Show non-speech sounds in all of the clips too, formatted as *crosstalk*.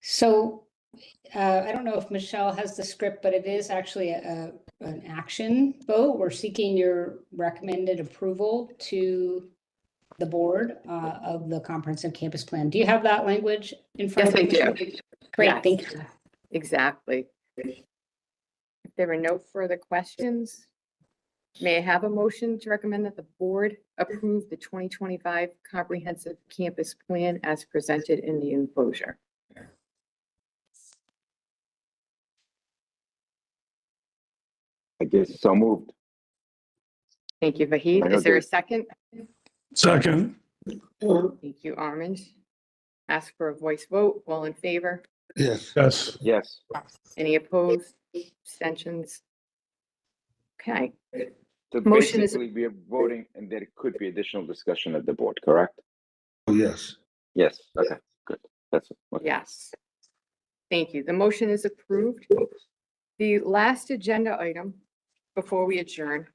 So uh, I don't know if Michelle has the script, but it is actually a, a- an action vote. We're seeking your recommended approval to the board uh, of the comprehensive campus plan. Do you have that language in front Yes, of you? I do. Michelle? Great, thank you. Exactly. If there are no further questions, may I have a motion to recommend that the board approve the 2025 comprehensive campus plan as presented in the enclosure? I guess so moved. Thank you, Vahid. Is there a second? Second, Thank you, Armin. Ask for a voice vote. All in favor? Yes, yes, Yes, Any opposed? Abstentions? Okay, so Motion is- basically we are voting and there could be additional discussion at the board, correct? oh, yes. Yes, okay, good. That's, okay. Yes. Thank you. The motion is approved. The last agenda item before we adjourn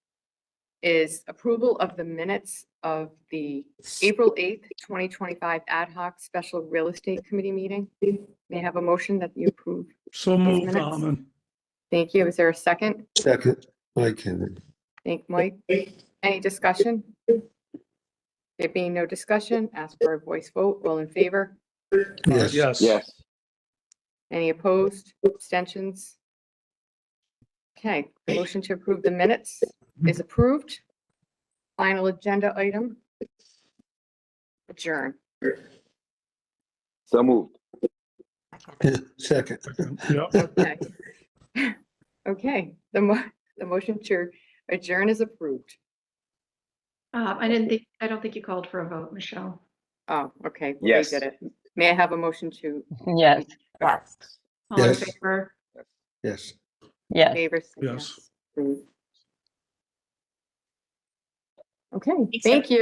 is approval of the minutes of the April 8th, 2025 ad hoc special real estate committee meeting. May I have a motion that you approve? so moved, minutes. Almond. Thank you. Is there a second? Second, Mike Henry. Thank Mike. Any discussion? There being no discussion, ask for a voice vote. All in favor? Yes, yes, Any opposed, abstentions? Okay, the motion to approve the minutes is approved. Final agenda item. Adjourn. so moved. *laughs* second. Yep, Okay. *laughs* Okay, the mo- the motion to adjourn is approved. Uh, I didn't think, I don't think you called for a vote, Michelle. Oh, okay. we Yes. did it. May I have a motion to Yes, All in Yes. favor? Yes, yes. favor? say Yes. Approved. Okay, Thanks, thank you.